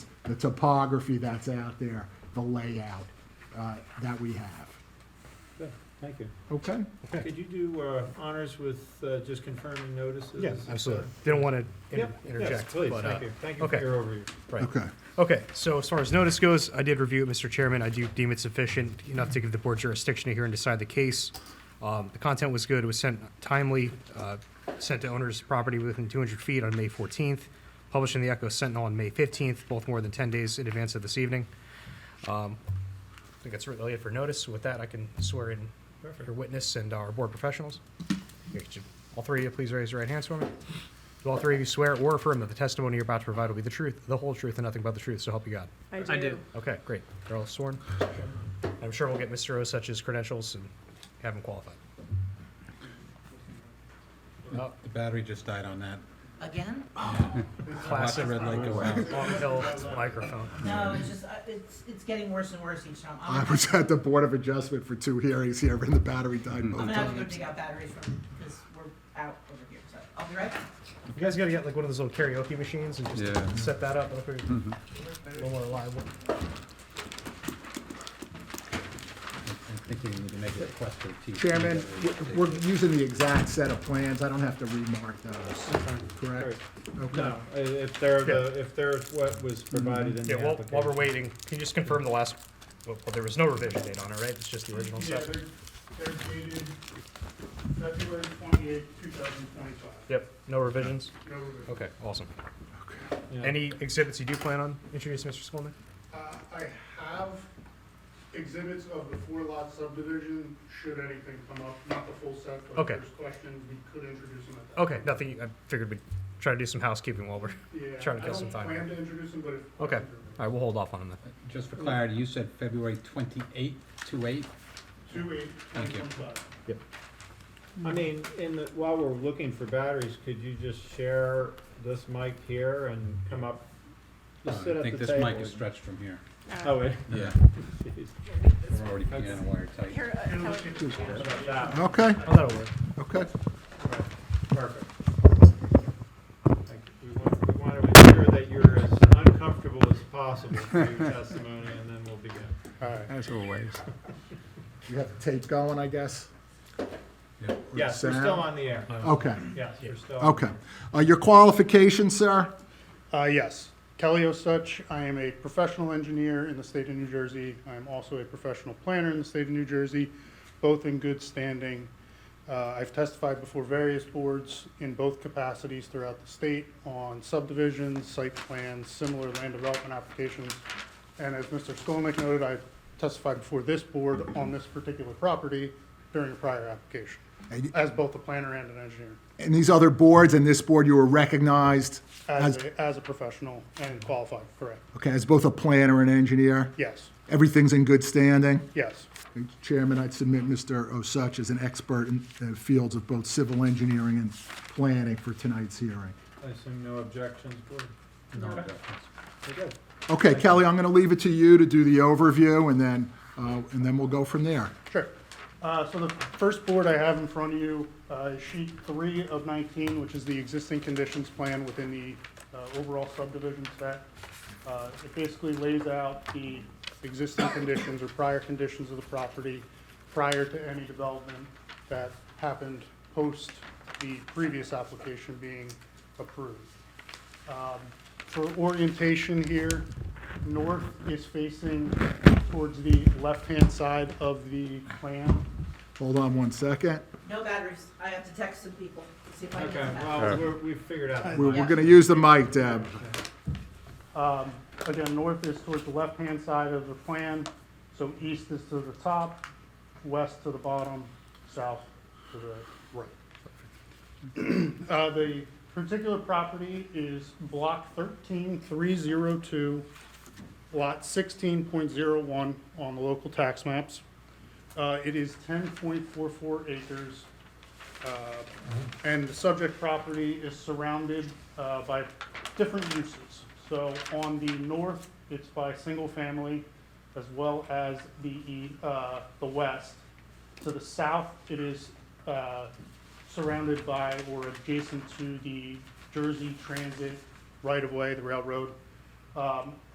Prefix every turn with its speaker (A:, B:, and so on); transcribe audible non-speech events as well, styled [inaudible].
A: the topography that's out there, the layout uh, that we have.
B: Good, Thank you.
A: Okay?
B: Could you do uh, honors with uh, just confirming notices?
C: Yes, absolutely. Didn't want to
B: Yep, yes,
C: interject,
B: please,
C: but, uh,
B: thank you. Thank you for
C: okay.
B: your overview.
C: right.
A: Okay.
C: Okay, so as far as notice goes, I did review it, Mr. Chairman. I do deem it sufficient enough to give the board jurisdiction to hear and decide the case. Um, The content was good, it was sent timely, uh, sent to owner's property within 200 feet on May 14th, published in the Echo Sentinel on May 15th, both more than 10 days in advance of this evening. Um, I think that's really it for notice. With that, I can swear in your witness and our board professionals. Here, could you- All three of you, please raise your right hands for me. Do all three of you swear or affirm that the testimony you're about to provide will be the truth, the whole truth, and nothing but the truth, so help you God?
D: I do.
C: Okay, great. They're all sworn. I'm sure we'll get Mr. Osuch's credentials and have him qualified. Oh,
E: The battery just died on that.
D: Again?
E: Watch the
C: Classic
E: red light go out.
C: long hill microphone.
D: No, it's just, uh, it's, it's getting worse and worse each time.
A: I
D: I'm
A: was at the Board of Adjustment for two hearings here, and the battery died both
D: I'm gonna have to go
A: times.
D: dig out batteries from, because we're out over here, so I'll be right back.
C: You guys gotta get like one of those little karaoke machines and
E: Yeah. Mm-hmm.
C: just set that up. It'll be A little more reliable.
E: I think we need to make a Uh, request for TC.
A: Chairman,
E: that we-
A: we're using the exact set of plans. I don't have to remark those, correct? Okay.
B: No, i- if they're, the-
C: Yeah. Mm-hmm.
B: if they're what was provided in the
C: Yeah, while,
B: application.
C: while we're waiting, can you just confirm the last, well, well, there was no revision date on it, right? It's just the original
F: Yeah,
C: stuff?
F: they're, they're dated February twenty-eighth, two thousand twenty-five.
C: Yep, no revisions?
F: No revision.
C: Okay, awesome.
B: Yeah.
C: Any exhibits you do plan on introducing, Mr. Skolnick?
F: Uh, I have exhibits of the four lot subdivision, should anything come up, not the full set, but
C: Okay.
F: if there's questions, we could introduce them at that.
C: Okay, nothing, I figured we'd try to do some housekeeping while we're, all
F: Yeah,
C: trying to kill some time
F: I
C: here.
F: don't plan to introduce them, but if.
C: Okay.
F: questions are-
C: right, we'll hold off on them then.
E: Just for clarity, you said February twenty-eighth, two-eight?
F: Two eight,
E: Thank
F: twenty
E: you.
F: twenty-five.
B: I mean, in the, while we're looking for batteries, could you just share this mic here and come up? Just sit
E: Uh,
B: at
E: I
B: the
E: think
B: table.
E: this mic is stretched from here.
B: Oh, wait.
E: Yeah,
B: [laughs] Jeez,
E: we're already piano wire tight.
F: And look at
B: how about that?
A: Okay,
C: Oh, that'll work.
A: okay.
B: Perfect. Thank you. We want, we want to ensure that you're as uncomfortable as possible for your testimony, and then we'll begin. All right.
E: As always.
A: You have the tape going, I guess?
B: Yes, we're still
A: Sound?
B: on the air.
A: Okay,
B: Yes, we're still. on
A: Uh, okay. Uh, Your qualifications, sir?
F: Uh, yes, Kelly Osuch. I am a professional engineer in the state of New Jersey. I am also a professional planner in the state of New Jersey, both in good standing. Uh, I've testified before various boards in both capacities throughout the state on subdivisions, site plans, similar land development applications. And as Mr. Skolnick noted, I testified before this board on this particular property during a prior application,
A: And you-
F: as both a planner and an engineer,
A: And these other boards and this board, you were recognized
F: as
A: As-
F: a, as a professional and qualified, correct?
A: Okay, as both a planner and engineer,
F: Yes.
A: everything's in good standing.
F: Yes,
A: Chairman, I'd submit Mr. Osuch as an expert in the fields of both civil engineering and planning for tonight's hearing.
B: I assume no objections, Gordon?
E: No,
B: Okay.
E: definitely.
B: We're good.
A: Okay, Kelly, I'm going to leave it to you to do the overview, and then, uh, and then we'll go from there.
F: sure. Uh, So the first board I have in front of you uh, is sheet three of 19, which is the existing conditions plan within the uh, overall subdivision set. Uh, It basically lays out the existing conditions or prior conditions of the property prior to any development that happened post the previous application being approved. Um, For orientation here, north is facing towards the left-hand side of the plan.
A: Hold on one second.
D: No batteries. I have to text some people, to see if I can.
B: Okay,
D: get back.
B: well, we're, we've figured out.
A: We're, we're going to use the mic, Deb.
F: Um, Again, north is towards the left-hand side of the plan, so east is to the top, west to the bottom, south to the right. Uh, The particular property is block 13302, lot 16.01 on the local tax maps. Uh, It is 10.44 acres. uh, And the subject property is surrounded uh, by different uses. So on the north, it's by single family, as well as the, e- uh, the west. To the south, it is, uh, surrounded by or adjacent to the Jersey Transit right-of-way, the railroad. Um,